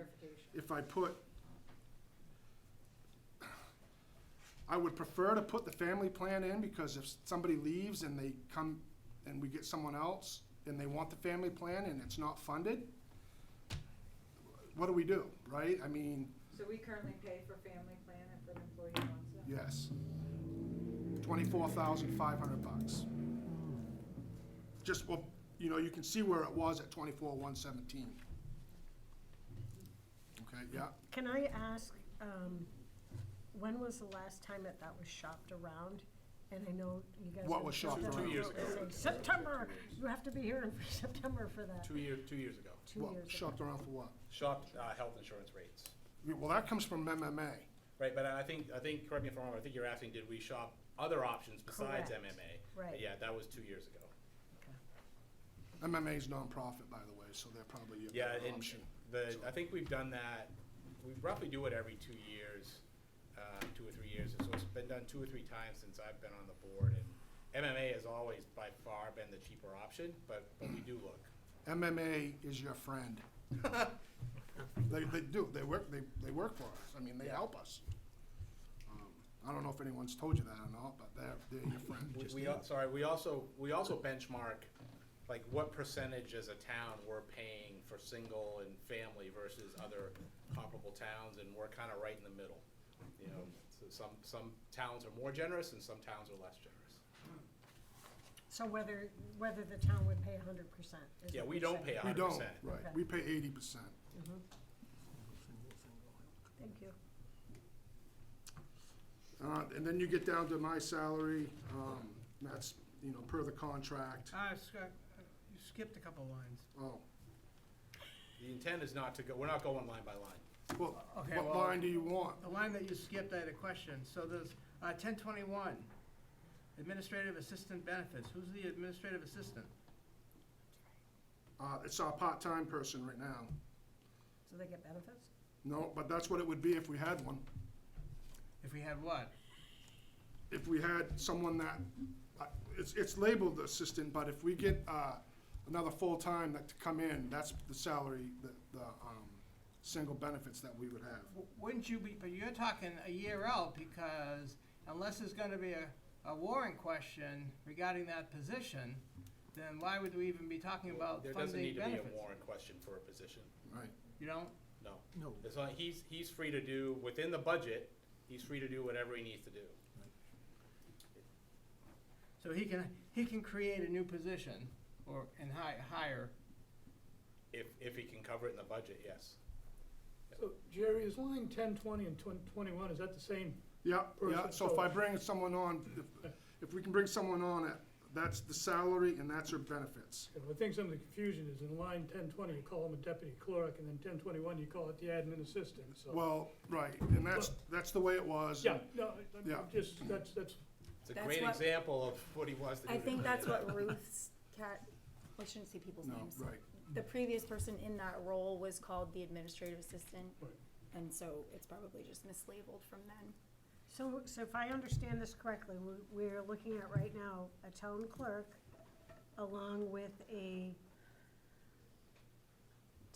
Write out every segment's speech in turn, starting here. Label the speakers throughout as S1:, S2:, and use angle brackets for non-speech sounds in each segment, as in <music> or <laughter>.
S1: clarification.
S2: if I put, I would prefer to put the family plan in because if somebody leaves and they come and we get someone else and they want the family plan and it's not funded, what do we do, right? I mean,
S1: So we currently pay for family plan if an employee wants it?
S2: yes. Twenty-four thousand five hundred bucks. Just, well, you know, you can see where it was at twenty-four one seventeen. Okay, yeah,
S3: Can I ask, um, when was the last time that that was shopped around? And I know you guys.
S2: What
S3: are
S2: was
S3: just
S2: shopped
S3: about
S2: around?
S3: to
S2: Two
S4: years
S3: go
S4: ago.
S3: and say, September, you have to be here in <laughs> September for that,
S4: Two years, two years ago.
S3: two
S2: well,
S3: years ago.
S2: shopped around for what?
S4: Shopped uh, health insurance rates,
S2: Yeah, Well, that comes from MMA.
S4: right? But I think, I think, correct me if I'm wrong, I think you're asking, did we shop other options besides
S3: Correct.
S4: MMA?
S3: Right.
S4: Yeah, that was two years ago.
S2: MMA's nonprofit, by the way, so they're probably your
S4: Yeah,
S2: better
S4: and
S2: option.
S4: the,
S2: So-
S4: I think we've done that, we roughly do it every two years, um, two or three years. And so it's been done two or three times since I've been on the board. And MMA has always by far been the cheaper option, but, but we do look.
S2: MMA is your
S4: <laughs>
S2: friend. They, they do, they work, they, they work for us. I mean, they help us. Um, I don't know if anyone's told you that or not, but they're, they're your friend.
S4: We- We, al- sorry, we also, we also benchmark, like, what percentage as a town we're paying for single and family versus other comparable towns, and we're kind of right in the middle. You know, so some, some towns are more generous and some towns are less generous.
S3: So whether, whether the town would pay hundred percent is
S4: Yeah,
S3: what
S4: we
S3: you're
S4: don't pay
S2: We
S3: saying.
S4: a hundred
S2: don't,
S4: percent.
S2: right,
S3: Okay.
S2: we pay eighty percent.
S3: Thank you.
S2: Uh, and then you get down to my salary, um, that's, you know, per the contract.
S5: Ah, Scott, uh, you skipped a couple lines.
S2: Oh,
S4: The intent is not to go, we're not going line by line.
S2: well,
S5: Okay,
S2: what
S5: well-
S2: line do you want?
S5: The line that you skipped, I had a question. So there's uh, 1021, administrative assistant benefits. Who's the administrative assistant?
S2: Uh, it's our part-time person right now.
S3: So they get benefits?
S2: No, but that's what it would be if we had one.
S5: If we had what?
S2: if we had someone that, uh, it's, it's labeled assistant, but if we get, uh, another full-time that to come in, that's the salary, the, the, um, single benefits that we would have.
S5: W- Wouldn't you be, but you're talking a year out because unless there's going to be a, a warrant question regarding that position, then why would we even be talking about
S4: There doesn't
S5: funding
S4: need to be a
S5: benefits?
S4: warrant question for a position,
S2: Right.
S5: You don't?
S4: no.
S6: No.
S4: As long, he's, he's free to do, within the budget, he's free to do whatever he needs to do.
S5: So he can, he can create a new position or, and hi- hire.
S4: If, if he can cover it in the budget, yes.
S6: So Jerry, is line ten twenty and twen- twenty-one, is that the same?
S2: Yeah, yeah,
S6: Person,
S2: so if I
S6: so-
S2: bring someone on, if, if we can bring someone on, uh, that's the salary and that's her benefits.
S6: And I think some of the confusion is in line ten twenty, you call him a deputy clerk, and then ten twenty-one, you call it the admin assistant, so.
S2: Well, right, and that's, that's the way it was.
S6: Yeah, no, I- I'm
S2: Yeah.
S6: just, that's, that's,
S4: It's a
S7: That's
S4: great
S7: what-
S4: example of what he wants to do.
S7: I
S4: to
S7: think
S4: create
S7: that's
S4: that. <laughs>
S7: what Ruth's cat, I shouldn't say people's
S2: No,
S7: names.
S2: right,
S7: The previous person in that role was called the administrative assistant.
S6: Right.
S7: And so it's probably just mislabeled from then.
S3: So, so if I understand this correctly, we- we're looking at right now a town clerk along with a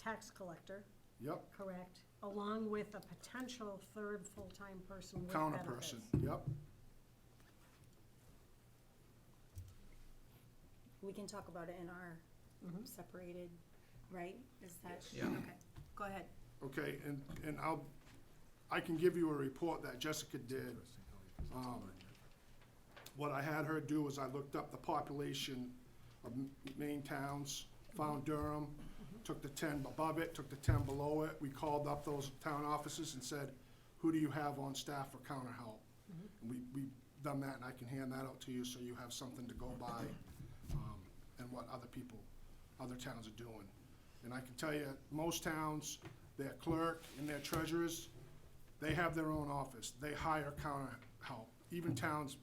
S3: tax collector.
S2: yep,
S3: Correct, along with a potential third full-time person with
S2: counter
S3: benefits.
S2: person, yep.
S7: We can talk about it in our separated, right? Is that?
S4: Yes. Yeah.
S7: Okay, go ahead.
S2: Okay, and, and I'll, I can give you a report that Jessica did. Um, What I had her do was I looked up the population of m- main towns, found Durham, took the ten above it, took the ten below it. We called up those town offices and said, who do you have on staff for counter help? And we, we done that, and I can hand that out to you so you have something to go by, um, and what other people, other towns are doing. And I can tell you, most towns, their clerk and their treasurers, they have their own office. They hire counter help, even towns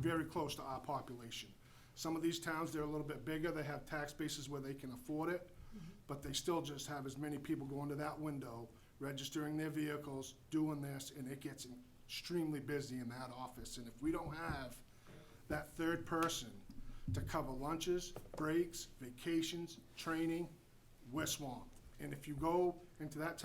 S2: very close to our population. Some of these towns, they're a little bit bigger, they have tax bases where they can afford it, but they still just have as many people going to that window, registering their vehicles, doing this, and it gets extremely busy in that office. And if we don't have that third person to cover lunches, breaks, vacations, training, we're swamped. And if you go into that town